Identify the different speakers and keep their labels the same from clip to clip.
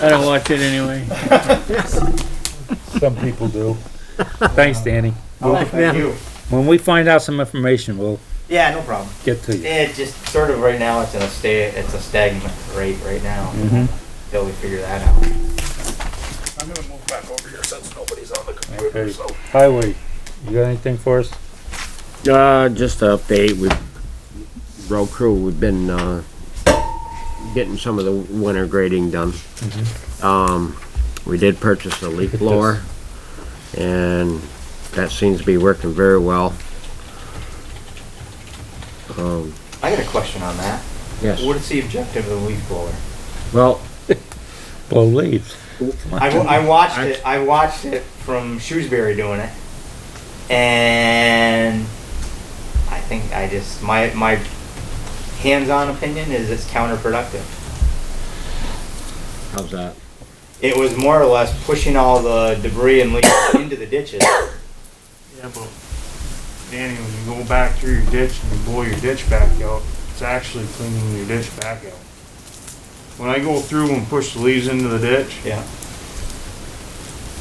Speaker 1: I don't watch it anyway.
Speaker 2: Some people do.
Speaker 3: Thanks, Danny.
Speaker 4: Oh, thank you.
Speaker 3: When we find out some information, we'll
Speaker 4: Yeah, no problem.
Speaker 3: get to you.
Speaker 4: It just sort of right now, it's at a stay, it's a stagnant rate right now.
Speaker 3: Mhm.
Speaker 4: Until we figure that out.
Speaker 2: I'm gonna move back over here since nobody's on the
Speaker 3: Okay. Highway, you got anything for us?
Speaker 5: Uh, just to update, we've, road crew, we've been, uh, getting some of the winter grading done. Um, we did purchase a leaf
Speaker 3: Look at
Speaker 5: blower, and that seems to be working very well. Um,
Speaker 4: I got a question on that.
Speaker 5: yes,
Speaker 4: What is the objective of the leaf blower?
Speaker 5: well,
Speaker 3: Blow leaves.
Speaker 4: I, w- I watched it. I watched it from Shrewsbury doing it, and I think I just my my hands-on opinion is it's counterproductive.
Speaker 5: how's that?
Speaker 4: It was more or less pushing all the debris and leaves into the ditches.
Speaker 6: Yeah, but Danny, when you go back through your ditch and you blow your ditch back out, it's actually cleaning your ditch back out. When I go through and push the leaves into the ditch,
Speaker 4: Yeah,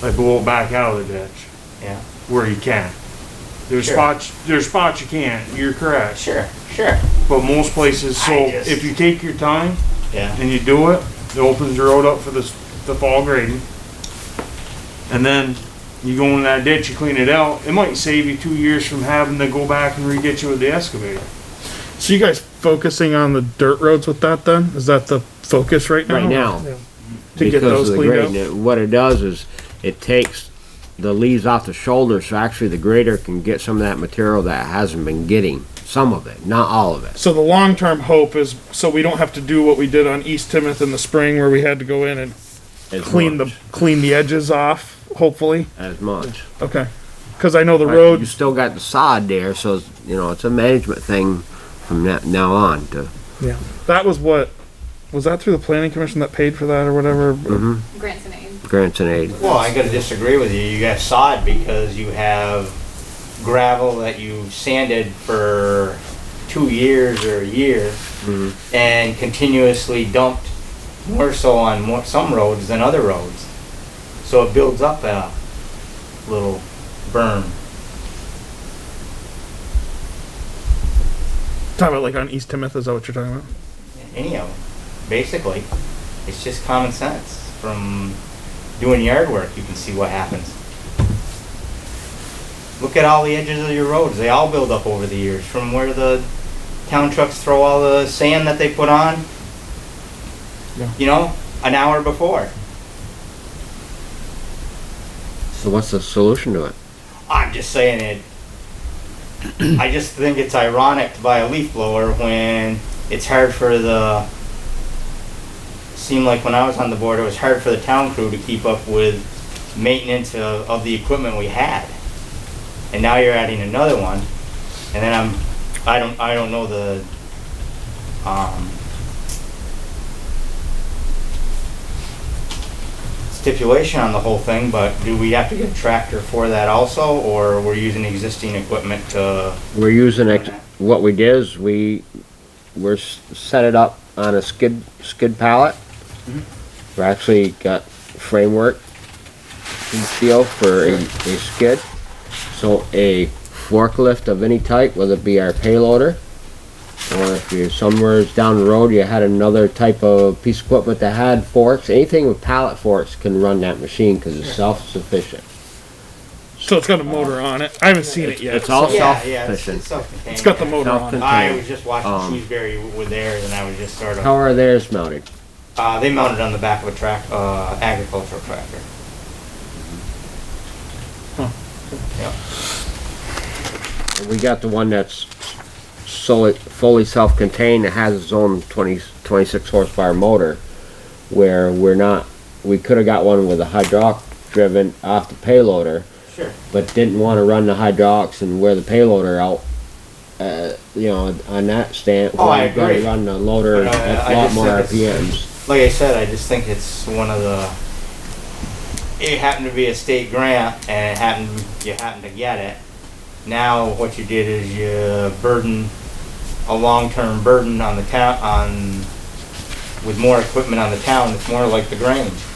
Speaker 6: I blow it back out of the ditch
Speaker 4: yeah,
Speaker 6: where you can. There's
Speaker 4: Sure.
Speaker 6: spots, there's spots you can't, you're correct,
Speaker 4: sure, sure.
Speaker 6: but most places, so
Speaker 4: I just-
Speaker 6: if you take your time
Speaker 4: Yeah,
Speaker 6: and you do it, it opens the road up for the, s- the fall grading. And then you go in that ditch, you clean it out, it might save you two years from having to go back and re-ditch it with the excavator.
Speaker 7: So you guys focusing on the dirt roads with that then? Is that the focus right now?
Speaker 5: Right now.
Speaker 7: To get
Speaker 5: because
Speaker 7: those
Speaker 5: of the
Speaker 7: cleaned
Speaker 5: grading.
Speaker 7: up?
Speaker 5: It- What it does is it takes the leaves off the shoulder, so actually the grader can get some of that material that hasn't been getting, some of it, not all of it.
Speaker 7: So the long-term hope is, so we don't have to do what we did on East Timoth in the spring where we had to go in and
Speaker 5: As
Speaker 7: clean the,
Speaker 5: much-
Speaker 7: clean the edges off, hopefully.
Speaker 5: As much.
Speaker 7: Okay. Cause I know the
Speaker 5: But You
Speaker 7: road,
Speaker 5: still got the sod there, so, it's- you know, it's a management thing from that now on to,
Speaker 7: that was what, was that through the planning commission that paid for that or whatever?
Speaker 8: grants and aid.
Speaker 5: grants and aid.
Speaker 4: well, I gotta disagree with you. You got sod because you have gravel that you sanded for two years or a year and continuously dumped more so on more, some roads than other roads. So it builds up a little burn.
Speaker 7: Talking about like on East Timoth, is that what you're talking about?
Speaker 4: any of them, basically. It's just common sense. From doing yard work, you can see what happens. Look at all the edges of your roads. They all build up over the years from where the town trucks throw all the sand that they put on,
Speaker 7: Yeah.
Speaker 4: you know, an hour before.
Speaker 5: So what's the solution to it?
Speaker 4: I'm just saying it. I just think it's ironic to buy a leaf blower when it's hard for the. Seemed like when I was on the board, it was hard for the town crew to keep up with maintenance of, of the equipment we had. And now you're adding another one, and then I'm, I don't, I don't know the, um, stipulation on the whole thing, but do we have to get a tractor for that also, or we're using existing equipment to?
Speaker 5: We're using, ex- what we did is we, we're s- set it up on a skid, skid pallet. We actually got framework and steel for a, a skid. So a forklift of any type, whether it be our payloader, or if you're somewhere down the road, you had another type of piece of equipment that had forks, anything with pallet forks can run that machine, cause it's self-sufficient.
Speaker 7: So it's got a motor on it. I haven't seen it yet.
Speaker 5: It's all
Speaker 4: Yeah, yeah, it's-
Speaker 5: self-sufficient.
Speaker 4: It's self-contained,
Speaker 7: It's got the
Speaker 4: yeah.
Speaker 7: motor on it.
Speaker 4: I
Speaker 5: Self-contained.
Speaker 4: was just watching
Speaker 5: Um,
Speaker 4: Shrewsbury were there, and I was just sort
Speaker 5: How
Speaker 4: of,
Speaker 5: are theirs mounted?
Speaker 4: uh, they mounted on the back of a track, uh, agricultural tractor.
Speaker 5: We got the one that's solely, fully self-contained, that has its own 20 26 horsepower motor, where we're not, we could've got one with a hydraulic driven off the payloader,
Speaker 4: Sure.
Speaker 5: but didn't wanna run the hydraulics and wear the payloader out, uh, you know, on that stand.
Speaker 4: Oh, I
Speaker 5: we're gonna
Speaker 4: agree.
Speaker 5: Run the loader
Speaker 4: But, uh,
Speaker 5: at
Speaker 4: I
Speaker 5: a lot
Speaker 4: just
Speaker 5: more
Speaker 4: think it's-
Speaker 5: RPMs.
Speaker 4: Like I said, I just think it's one of the, it happened to be a state grant, and it happened, you happened to get it. Now, what you did is you burden, a long-term burden on the town, on, with more equipment on the town, it's more like the Grange.